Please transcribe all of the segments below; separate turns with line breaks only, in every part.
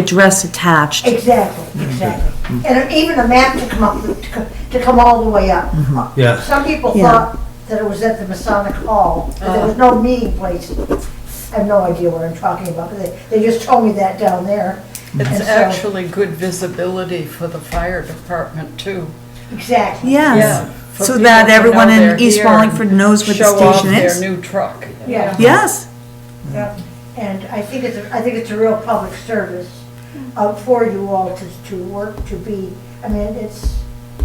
address attached.
Exactly, exactly.
Mm-hmm.
And even a map to come up, to co- to come all the way up.
Mm-hmm.
Yeah.
Some people
Yeah.
thought that it was at the Masonic Hall, but there was
Oh.
no meeting place. I have no idea what I'm talking about, but they, they just told me that down there. And
It's
so-
actually good visibility for the fire department, too.
Exactly.
Yes.
Yeah, for
So
people
that
to
everyone
know
in
they're
East
here
Wallingford
and
knows where the station
Show off
is.
their new truck.
Yeah.
Yes,
Yep. And I think it's, a- I think it's a real public service uh, for you all to, to work, to be, I mean, it's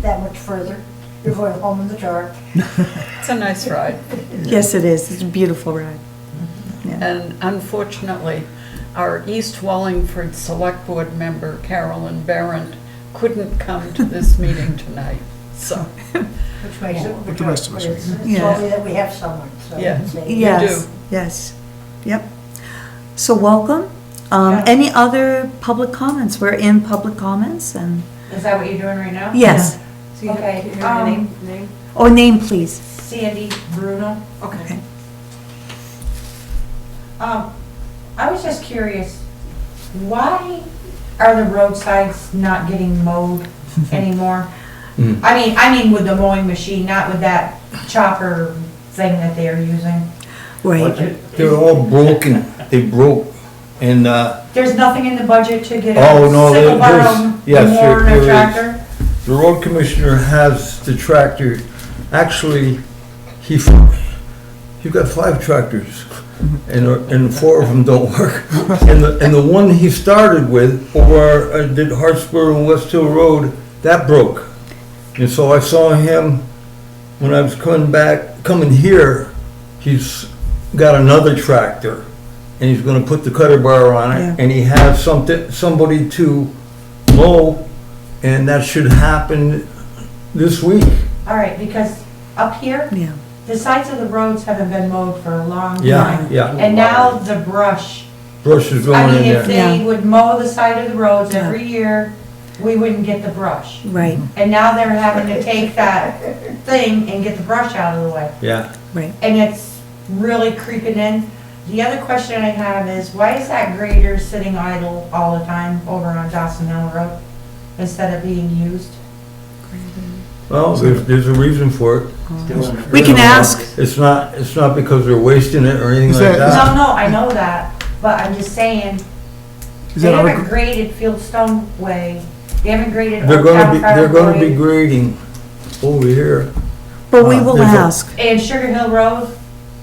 that much further. You're going home in the dark.
It's a nice ride.
yes it is. It's a beautiful ride.
And unfortunately, our East Wallingford Select Board member, Carolyn Barron, couldn't come to this meeting tonight, so,
Which makes it.
But the rest of us
It's
are.
it's
Yeah.
lovely that we have someone, so.
Yeah.
it's a-
Yeah. do.
Yes, yes, yep. So welcome. Um,
Yeah.
any other public comments? We're in public comments and,
Is that what you're doing right now?
yes.
So you have
Okay,
you have your
um,
name, name?
Or name, please.
Sandy Bruno.
Okay.
Okay. Um, I was just curious, why are the roadsides not getting mowed anymore?
Mm.
I mean, I mean with the mowing machine, not with that chopper thing that they are using.
Right.
They're all broken, they broke, and, uh,
There's nothing in the budget to get
Oh,
a
no, there-
sickle
there's-
barrel
yes, there-
mower and
there
a
is.
tractor?
the road commissioner has the tractor, actually, he, f- he got five tractors, and, uh, and four of them don't work. And the, and the one he started with, over, uh, did Hartsburg and West Hill Road, that broke. And so I saw him, when I was coming back, coming here, he's got another tractor, and he's gonna put the cutter bar on
Yeah.
it, and he has something, somebody to mow, and that should happen this week.
All right, because up here,
Yeah.
the sides of the roads haven't been mowed for a long time.
Yeah, yeah,
And now the brush.
brush is
I
going in
mean, if
there.
Yeah.
they would mow the side of the roads
Yeah.
every year, we wouldn't get the brush.
Right,
And now they're having to take that thing and get the brush out of the way.
Yeah,
right.
And it's really creeping in. The other question I have is, why is that grader sitting idle all the time over on Dawson Hill Road instead of being used?
well, there's, there's a reason for it.
We can ask.
It's not, it's not because they're wasting it or anything
Is
like
that- is
No,
that.
no, I know that, but I'm just saying,
Is
They
that
haven't
our,
graded Fieldstone Way, they haven't graded
They're
Old
gonna be,
Town
they're gonna be
Fire Way,
grading over here.
But we
Uh,
will
there's a-
ask.
and Sugar Hill Road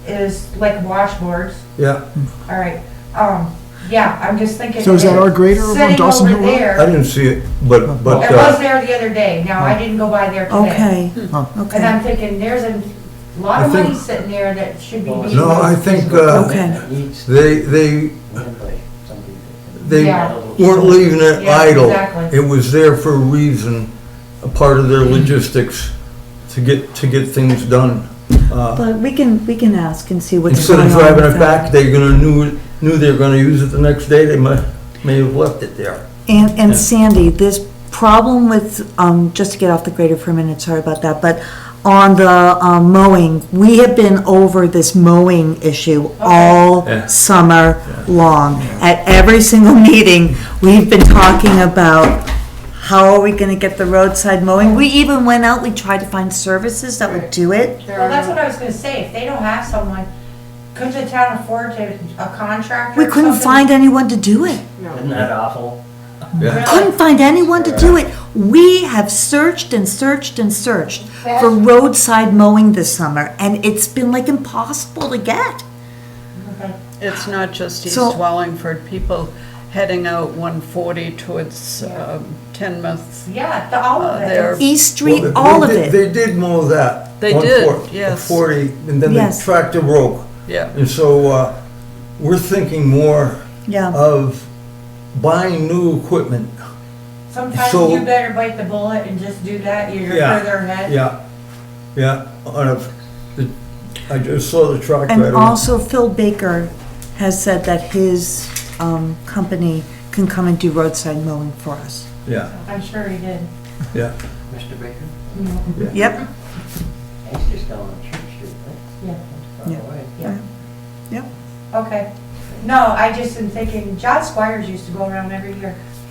is like washboards,
Yeah,
all right, um, yeah, I'm just thinking.
So is that our grader
grader
over on Dawson Hill Road?
Sitting
I
over there,
didn't see it, but, but,
it was
uh,
there the other day, now I didn't go by there
Okay,
today. And
okay,
I'm thinking, there's a lot
I
of
think-
money sitting there that should be. being
no, I
used.
think, uh,
okay.
they, they, they
Yeah.
weren't leaving it
Yeah,
idle.
exactly.
It was there for a reason, a part of their logistics to get, to get things done. Uh,
But we can, we can ask and see what's
Instead
going on.
of driving
with
it
that.
back, they gonna knew, knew they were gonna use it the next day, they might, may have left it there.
And, and
Yeah.
Sandy, this problem with, um, just to get off the grader for a minute, sorry about that, but on the, um, mowing, we have been over this mowing issue
Yeah.
all summer long. At every single meeting, we've been talking about how are we gonna get the roadside mowing? We even went out, we tried to find services that would do it.
Well, that's what I was gonna say, if they don't have someone, couldn't the town afford to, a contractor?
We
or
couldn't
something?
find anyone to do it.
Isn't that awful?
Yeah.
couldn't find anyone to do it. We have searched and searched and searched for roadside mowing this summer, and it's been like impossible to get.
it's not just East
So-
Wallingford, people heading out 140 towards um, Tenmouth.
Yeah, the, all of
Uh,
it.
they're-
East
Well, they-
Street, all of
they did-
it.
They did mow that.
They
on
did,
four-
yes.
Forty, and then the
Yes.
tractor broke.
Yeah,
And so, uh, we're thinking more
Yeah,
of buying new equipment.
Sometimes
So-
you better bite the bullet and just do that, you're
Yeah,
further ahead.
Yeah, yeah, on a, the- I just saw the truck
and
right away.
also Phil Baker has said that his um, company can come and do roadside mowing for us.
Yeah,
I'm sure he did.
yeah.
Mr. Baker,
Yep,
he's just down on Church Street, right?
Yeah.
That's far
Yeah.
away.
Yeah.
Yeah.
Okay. No, I just am thinking, John Squires used to go around every year.